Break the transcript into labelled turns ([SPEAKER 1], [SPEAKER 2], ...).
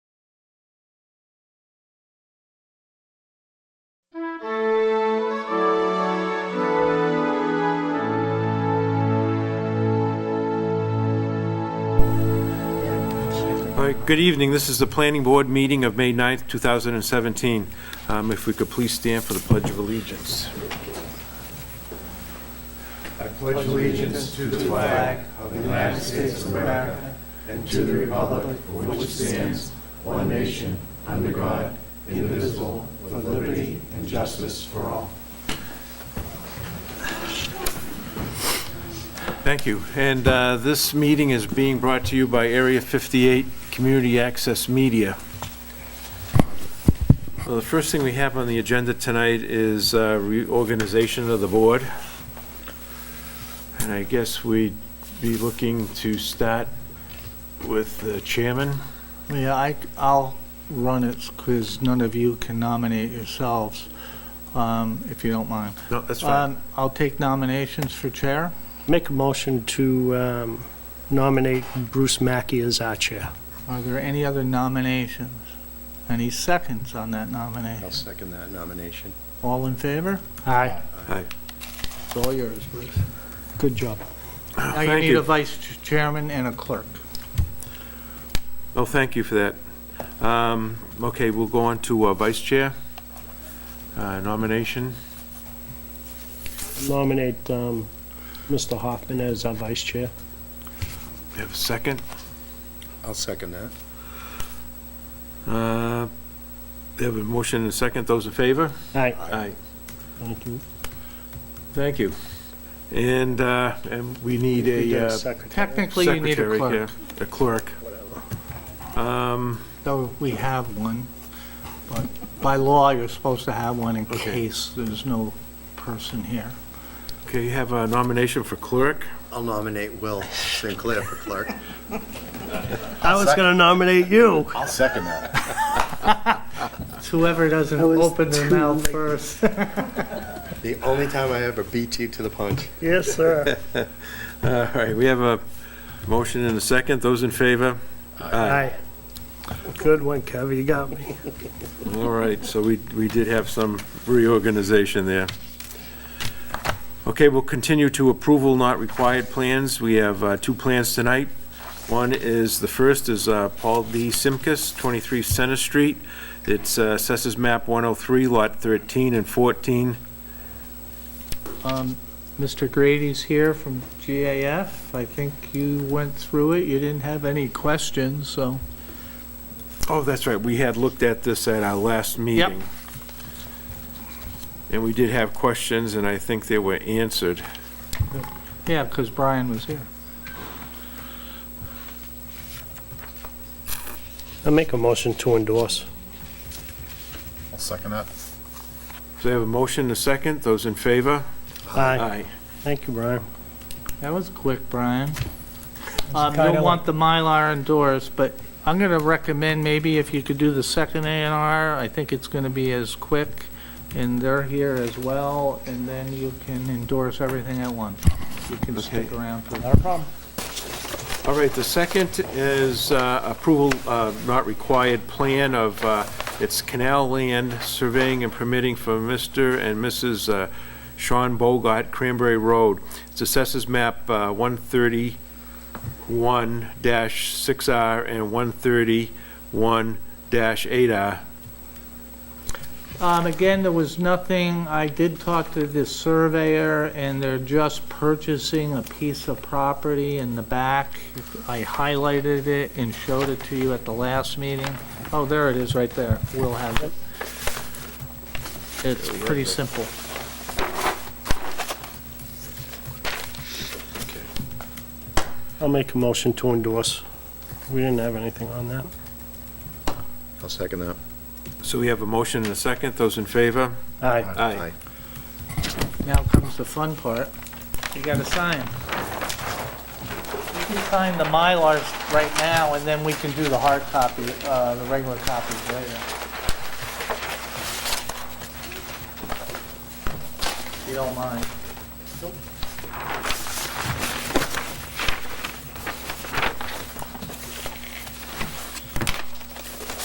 [SPEAKER 1] right, good evening. This is the Planning Board meeting of May 9th, 2017. Um, If we could please stand for the Pledge of Allegiance. Thank you. And uh, this meeting is being brought to you by Area 58 Community Access Media. Well, the first thing we have on the agenda tonight is uh, reorganization of the board. And I guess we'd be looking to start with the chairman.
[SPEAKER 2] Yeah, I, will run it because none of you can nominate yourselves, um, if you don't mind.
[SPEAKER 1] No, that's fine.
[SPEAKER 2] Um, I'll take nominations for chair.
[SPEAKER 3] Make a motion to um, nominate Bruce Mackey as our chair.
[SPEAKER 2] Are there any other nominations? Any seconds on that nomination?
[SPEAKER 4] I'll second that nomination.
[SPEAKER 2] All in favor?
[SPEAKER 3] Aye.
[SPEAKER 1] Hi.
[SPEAKER 2] It's all yours, Bruce.
[SPEAKER 3] Good job.
[SPEAKER 2] Now you
[SPEAKER 1] Thank
[SPEAKER 2] need
[SPEAKER 1] you.
[SPEAKER 2] a vice ch- chairman and a clerk.
[SPEAKER 1] Oh, thank you for that. Um, Okay, we'll go on to uh, vice chair Uh, nomination.
[SPEAKER 3] Nominate um, Mr. Hoffman as our vice chair.
[SPEAKER 1] Have a second?
[SPEAKER 4] I'll second that.
[SPEAKER 1] Uh, They have a motion and a second. Those in favor?
[SPEAKER 3] Aye.
[SPEAKER 1] Aye.
[SPEAKER 3] Thank you.
[SPEAKER 1] Thank you. And, uh, and we need
[SPEAKER 3] You
[SPEAKER 1] a
[SPEAKER 3] get
[SPEAKER 1] uh,
[SPEAKER 3] secretary.
[SPEAKER 2] Technically, you need a
[SPEAKER 1] secretary
[SPEAKER 2] clerk,
[SPEAKER 1] here. A clerk. Um,
[SPEAKER 2] though we have one. But by law, you're supposed to have one in
[SPEAKER 1] Okay.
[SPEAKER 2] case there's no person here.
[SPEAKER 1] Okay, you have a nomination for clerk.
[SPEAKER 4] I'll nominate Will Sinclair for clerk.
[SPEAKER 3] I was going to nominate you.
[SPEAKER 4] I'll second that.
[SPEAKER 2] It's Whoever doesn't
[SPEAKER 3] That was
[SPEAKER 2] open their
[SPEAKER 3] too
[SPEAKER 2] mouth
[SPEAKER 3] late.
[SPEAKER 2] first.
[SPEAKER 4] The only time I ever beat you to the punch.
[SPEAKER 3] Yes, sir.
[SPEAKER 1] All right, we have a motion and a second. Those in favor?
[SPEAKER 3] Aye. Good one, Kev, you got me.
[SPEAKER 1] All right, so we, we did have some reorganization there. Okay, we'll continue to approval not required plans. We have uh, two plans tonight. One is, the first is uh, Paul D. Simkus, 23 Center Street. It's uh, assessors map 103, lot 13 and 14.
[SPEAKER 2] Um, Mr. Grady's here from GAF. I think you went through it. You didn't have any questions, so.
[SPEAKER 1] Oh, that's right, we had looked at this at our last meeting. And we did have questions, and I think they were answered.
[SPEAKER 2] Yeah, because Brian was here.
[SPEAKER 3] I make a motion to endorse.
[SPEAKER 4] I'll second that.
[SPEAKER 1] So I have a motion, and a second, those in favor?
[SPEAKER 3] Aye. Thank you, Brian.
[SPEAKER 2] That was quick, Brian. Um,
[SPEAKER 3] kinda
[SPEAKER 2] You'll want the Mylar endorsed, but I'm going to recommend maybe if you could do the second A and R. I think it's going to be as quick, and they're here as well, and then you can endorse everything at once. You can stick
[SPEAKER 1] Okay.
[SPEAKER 2] around for
[SPEAKER 3] Not a problem.
[SPEAKER 1] All right, the second is uh, approval uh, not required plan of, uh, it's canal land surveying and permitting for Mr. and Mrs. uh, Sean Bogart, Cranberry Road. It's assessors map uh, 131-6R and 131-8R.
[SPEAKER 2] Um, again, there was nothing, I did talk to the surveyor, and they're just purchasing a piece of property in the back. I highlighted it and showed it to you at the last meeting. Oh, there it is, right there. We'll have it. It's pretty simple.
[SPEAKER 3] I'll make a motion to endorse. We didn't have anything on that.
[SPEAKER 4] I'll second that.
[SPEAKER 1] So we have a motion and a second. Those in favor?
[SPEAKER 3] Aye.
[SPEAKER 2] Now comes the fun part. You gotta sign. You can sign the Mylars right now, and then we can do the hard copy, uh, the regular copies later. If you don't mind.